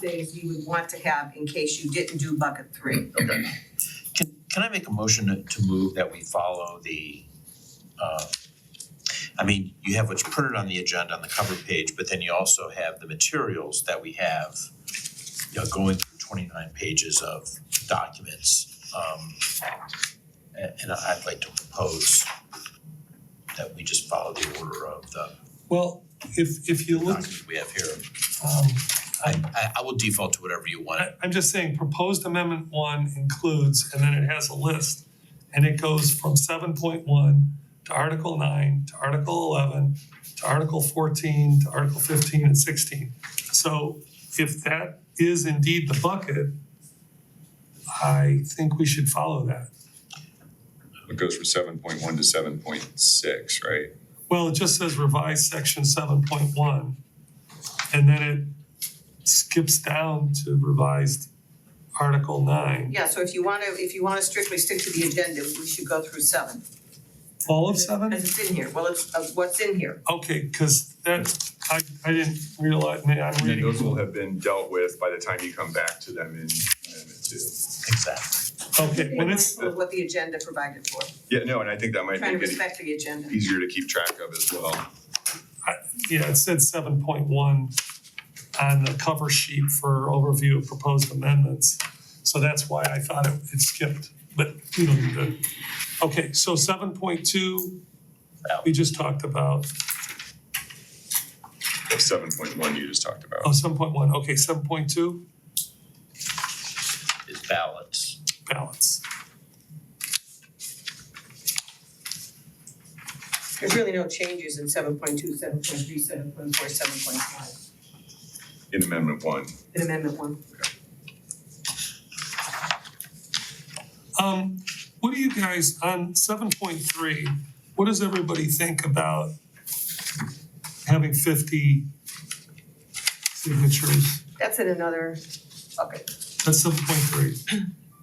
days you would want to have in case you didn't do bucket three. Okay. Can can I make a motion to to move that we follow the uh I mean, you have what's printed on the agenda on the cover page, but then you also have the materials that we have, you know, going through twenty-nine pages of documents. Um a- and I'd like to propose that we just follow the order of the Well, if if you look, documents we have here. um, I I I will default to whatever you want. I I'm just saying, proposed amendment one includes, and then it has a list. And it goes from seven point one to article nine, to article eleven, to article fourteen, to article fifteen and sixteen. So if that is indeed the bucket, I think we should follow that. It goes from seven point one to seven point six, right? Well, it just says revise section seven point one. And then it skips down to revised article nine. Yeah, so if you wanna, if you wanna strictly stick to the agenda, we should go through seven. All of seven? Cause it's in here, well, it's uh what's in here. Okay, cause that, I I didn't realize, man, I'm And then those reading, will have been dealt with by the time you come back to them in amendment two. Exactly. okay, when it's, Mindful of what the agenda provided for, Yeah, no, and I think that might trying to make it respect the agenda. easier to keep track of as well. yeah, it said seven point one on the cover sheet for overview of proposed amendments. So that's why I thought it it skipped, but we don't need to. Okay, so seven point two, we just talked about. Seven point one you just talked Oh, about. seven point one, okay, seven point two, Is balance. balance. There's really no changes in seven point two, seven point three, seven point four, seven point five, In amendment one. in amendment one. Um, what do you guys, on seven point three, what does everybody think about having fifty signatures? That's in another bucket, That's seven point three.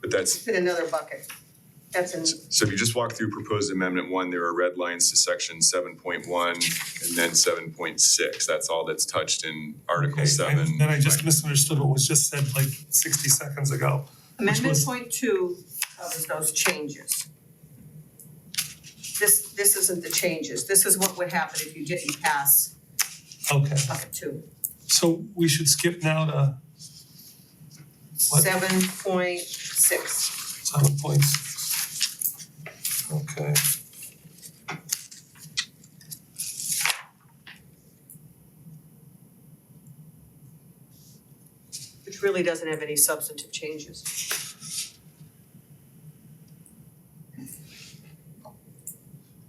But that's, it's in another bucket. That's in, so if you just walk through proposed amendment one, there are red lines to section seven point one and then seven point six. That's all that's touched in article seven. And I just misunderstood what was just said like sixty seconds ago. amendment was- point two covers those changes. This, this isn't the changes, this is what would happen if you didn't pass Okay, bucket two. so we should skip now to What? Seven point six, seven point six. Okay. which really doesn't have any substantive changes.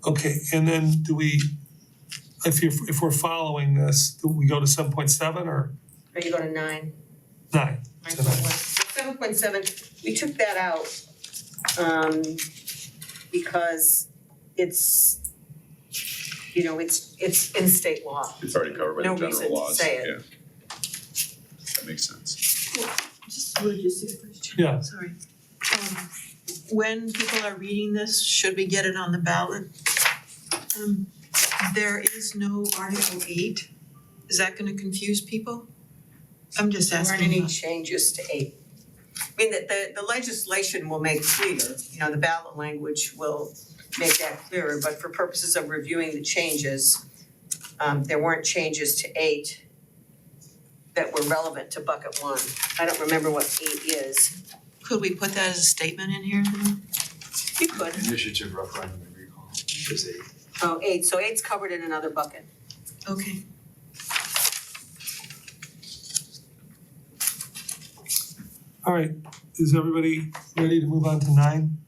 Okay, and then do we, if you, if we're following this, do we go to seven point seven or Are you going to nine? nine? Nine point one. Seven point seven, we took that out, um, because it's, you know, it's, it's in state law. It's already covered by No the reason general to laws, say yeah. it. That makes sense. Just would you see first? Yeah. Sorry. Um, When people are reading this, should we get it on the ballot? Um, There is no Article eight. Is that gonna confuse people? I'm just There asking. aren't any changes to eight. I mean, the- the, the legislation will make clear, you know, the ballot language will make that clearer, but for purposes of reviewing the changes, um, there weren't changes to eight that were relevant to bucket one. I don't remember what eight is. Could we put that as a statement in here? You could. Initiative referendum and recall is a Oh, eight, so eight's covered in another bucket. Okay. All right, is everybody ready to move on to nine?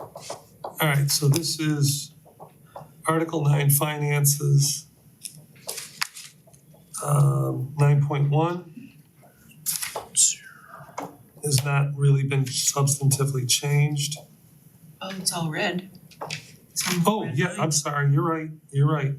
All right, so this is Article nine finances. Um, nine point one. Has not really been substantively changed. Oh, it's all red. It's on the Oh, red yeah, line. I'm sorry, you're right, you're right.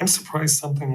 I'm surprised something